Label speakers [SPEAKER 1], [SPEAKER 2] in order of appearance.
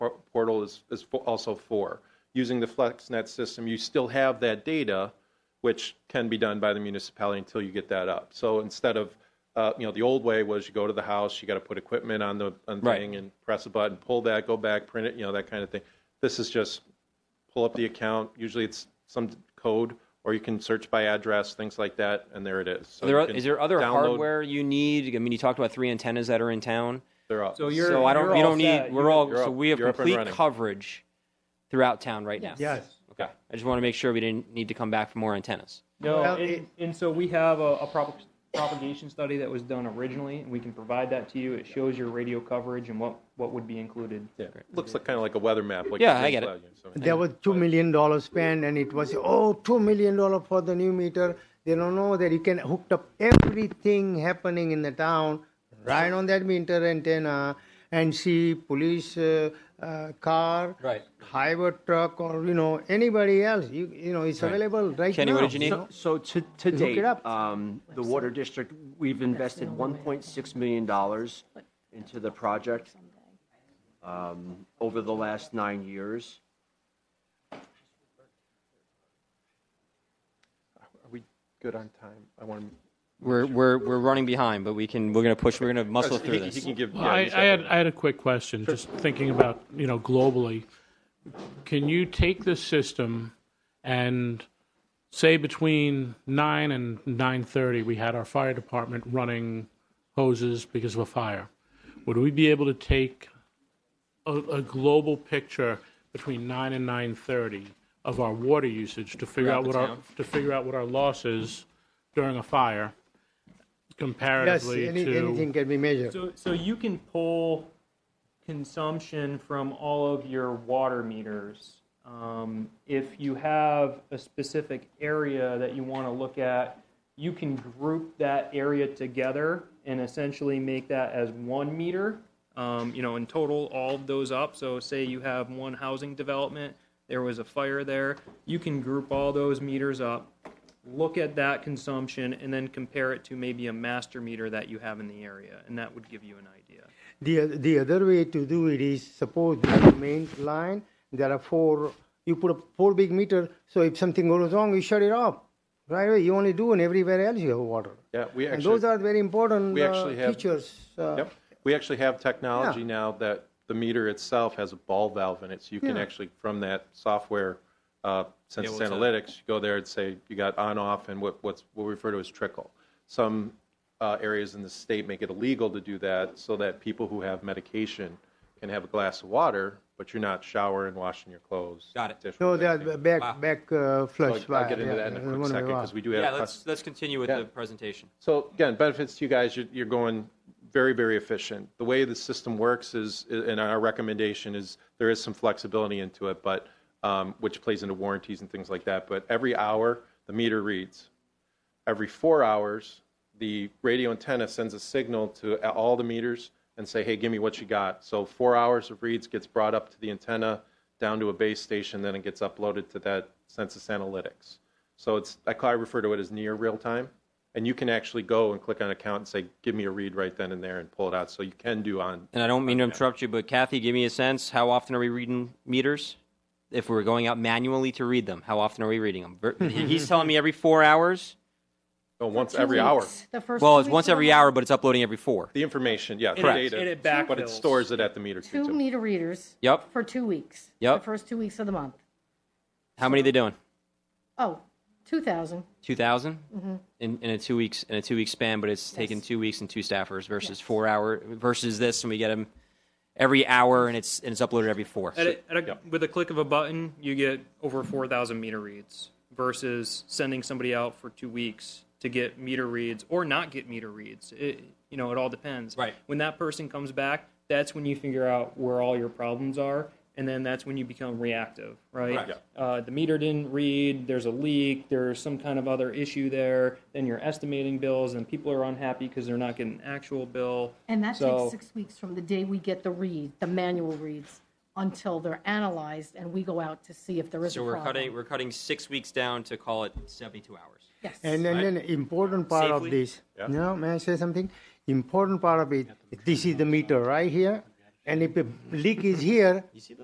[SPEAKER 1] portal is, is fo- also for. Using the FlexNet system, you still have that data, which can be done by the municipality until you get that up. So instead of, uh, you know, the old way was you go to the house, you got to put equipment on the on
[SPEAKER 2] Right.
[SPEAKER 1] thing and press a button, pull that, go back, print it, you know, that kind of thing. This is just pull up the account. Usually it's some code, or you can search by address, things like that, and there it is. So
[SPEAKER 2] Are there,
[SPEAKER 1] you can
[SPEAKER 2] is there other
[SPEAKER 1] download-
[SPEAKER 2] hardware you need? I mean, you talked about three antennas that are in town.
[SPEAKER 1] They're up.
[SPEAKER 3] So you're-
[SPEAKER 2] so I don't.
[SPEAKER 3] you're
[SPEAKER 2] you
[SPEAKER 3] all
[SPEAKER 2] don't
[SPEAKER 3] set.
[SPEAKER 2] need. We're
[SPEAKER 3] You're-
[SPEAKER 2] all.
[SPEAKER 1] you're
[SPEAKER 2] so
[SPEAKER 1] up-
[SPEAKER 2] we have
[SPEAKER 1] you're up and
[SPEAKER 2] complete
[SPEAKER 1] running.
[SPEAKER 2] coverage throughout town right now.
[SPEAKER 4] Yes.
[SPEAKER 2] Okay. I just want to make sure we didn't need to come back for more antennas.
[SPEAKER 3] No,
[SPEAKER 4] Well,
[SPEAKER 3] and,
[SPEAKER 4] it-
[SPEAKER 3] and so we have a, a prop- propagation study that was done originally, and we can provide that to you. It shows your radio coverage and what, what would be included.
[SPEAKER 1] Yeah, looks like kind of like a weather map. Like
[SPEAKER 2] Yeah, I get it.
[SPEAKER 4] There was two million dollars spent, and it was oh two million dollar for the new meter. They don't know that you can hook up everything happening in the town right on that meter antenna and see police uh, uh, car,
[SPEAKER 2] Right.
[SPEAKER 4] highway truck, or you know anybody else. You you know it's available right
[SPEAKER 2] Kenny,
[SPEAKER 4] now.
[SPEAKER 2] what did you need?
[SPEAKER 5] So, so to, to
[SPEAKER 4] Hook
[SPEAKER 5] date,
[SPEAKER 4] it up.
[SPEAKER 5] um, the water district, we've invested one point six million dollars into the project, um, over the last nine years.
[SPEAKER 1] Are we good on time? I want to.
[SPEAKER 2] We're we're we're running behind, but we can. We're gonna push. We're gonna muscle through
[SPEAKER 1] he, he
[SPEAKER 2] this.
[SPEAKER 1] can give.
[SPEAKER 6] Well,
[SPEAKER 1] yeah,
[SPEAKER 6] I,
[SPEAKER 1] he's
[SPEAKER 6] I had,
[SPEAKER 1] got
[SPEAKER 6] I had a quick question, just thinking about, you know, globally. Can you take this system and say between nine and nine thirty, we had our fire department running hoses because of a fire? Would we be able to take a, a global picture between nine and nine thirty of our water usage to figure out
[SPEAKER 2] the
[SPEAKER 6] what our,
[SPEAKER 2] town.
[SPEAKER 6] to figure out what our loss is during a fire
[SPEAKER 4] Yes,
[SPEAKER 6] comparatively
[SPEAKER 4] any,
[SPEAKER 6] to?
[SPEAKER 4] anything can be measured.
[SPEAKER 3] So, so you can pull consumption from all of your water meters. Um, if you have a specific area that you want to look at, you can group that area together and essentially make that as one meter. Um, you know, in total, all of those up. So, say you have one housing development, there was a fire there. You can group all those meters up, look at that consumption, and then compare it to maybe a master meter that you have in the area, and that would give you an idea.
[SPEAKER 4] The, oth- the other way to do it is suppose you have a main line, there are four, you put a four big meter, so if something goes wrong, you shut it off. Right away, you only do and everywhere else you have water.
[SPEAKER 1] Yeah, we
[SPEAKER 4] And
[SPEAKER 1] actually-
[SPEAKER 4] those are very important
[SPEAKER 1] we
[SPEAKER 4] uh,
[SPEAKER 1] actually have-
[SPEAKER 4] features. uh,
[SPEAKER 1] Yep. We actually have technology
[SPEAKER 4] Yeah.
[SPEAKER 1] now that the meter itself has a ball valve in it, so you can
[SPEAKER 4] Yeah.
[SPEAKER 1] actually, from that software, uh, Census
[SPEAKER 3] what's that?
[SPEAKER 1] Analytics, you go there and say you got on, off, and what, what's what we refer to as trickle. Some uh, areas in the state make it illegal to do that, so that people who have medication can have a glass of water, but you're not showering, washing your clothes.
[SPEAKER 2] Got it.
[SPEAKER 1] dishwashing,
[SPEAKER 4] So that
[SPEAKER 1] anything.
[SPEAKER 4] back,
[SPEAKER 2] Wow.
[SPEAKER 4] back uh,
[SPEAKER 1] So
[SPEAKER 4] flush.
[SPEAKER 1] I'll
[SPEAKER 4] wire,
[SPEAKER 1] get into
[SPEAKER 4] yeah,
[SPEAKER 1] that in
[SPEAKER 4] yeah,
[SPEAKER 1] a quick
[SPEAKER 4] one
[SPEAKER 1] second
[SPEAKER 4] wire.
[SPEAKER 1] because we do have.
[SPEAKER 2] Yeah.
[SPEAKER 1] a
[SPEAKER 2] Let's let's continue with
[SPEAKER 1] Yeah.
[SPEAKER 2] the presentation.
[SPEAKER 1] so again, benefits to you guys, you're, you're going very, very efficient. The way the system works is, and our recommendation is, there is some flexibility into it, but, um, which plays into warranties and things like that. But every hour, the meter reads. Every four hours, the radio antenna sends a signal to a- all the meters and say, hey, give me what you got. So four hours of reads gets brought up to the antenna, down to a base station, then it gets uploaded to that census analytics. So it's, I call- I refer to it as near real time. And you can actually go and click on account and say, give me a read right then and there and pull it out. So you can do on,
[SPEAKER 2] And I don't mean to interrupt you, but Kathy, give me a sense. How often are we reading meters? If we're going out manually to read them, how often are we reading them? Ver- He's telling me every four hours.
[SPEAKER 1] oh, once
[SPEAKER 7] Two
[SPEAKER 1] every
[SPEAKER 7] weeks.
[SPEAKER 1] hour.
[SPEAKER 7] The first
[SPEAKER 2] Well,
[SPEAKER 7] two
[SPEAKER 2] it's
[SPEAKER 7] weeks
[SPEAKER 2] once
[SPEAKER 7] of the
[SPEAKER 2] every
[SPEAKER 7] month.
[SPEAKER 2] hour, but it's uploading every four.
[SPEAKER 1] The information, yeah, the
[SPEAKER 3] Correct.
[SPEAKER 1] data.
[SPEAKER 3] And it
[SPEAKER 1] But
[SPEAKER 3] backfills.
[SPEAKER 1] it stores it at the meter too.
[SPEAKER 7] Two
[SPEAKER 1] so-
[SPEAKER 7] meter readers.
[SPEAKER 2] Yep.
[SPEAKER 7] For two weeks.
[SPEAKER 2] Yep.
[SPEAKER 7] The first two weeks of the month.
[SPEAKER 2] How many are they doing?
[SPEAKER 7] Oh, 2,000.
[SPEAKER 2] Two
[SPEAKER 7] Mm-hmm.
[SPEAKER 2] in, in a two weeks in a two week span, but it's taken two weeks and two staffers versus four hour versus this, and we get them every hour, and it's and it's uploaded every four.
[SPEAKER 3] At a, at a,
[SPEAKER 1] Yep.
[SPEAKER 3] With a click of a button, you get over 4,000 meter reads versus sending somebody out for two weeks to get meter reads or not get meter reads. It, you know, it all depends.
[SPEAKER 2] Right.
[SPEAKER 3] When that person comes back, that's when you figure out where all your problems are, and then that's when you become reactive, right?
[SPEAKER 2] Correct.
[SPEAKER 3] Uh, the meter didn't read. There's a leak. There's some kind of other issue there. Then you're estimating bills, and people are unhappy because they're not getting an actual bill.
[SPEAKER 7] And that
[SPEAKER 3] So-
[SPEAKER 7] takes six weeks from the day we get the read, the manual reads, until they're analyzed and we go out to see if there is a
[SPEAKER 2] so we're
[SPEAKER 7] problem.
[SPEAKER 2] cutting we're cutting six weeks down to call it seventy two hours.
[SPEAKER 7] Yes.
[SPEAKER 4] And then, then important part of
[SPEAKER 2] Safely?
[SPEAKER 4] this. No, may I say something? Important part of it. This is the meter right here, and if a leak is here,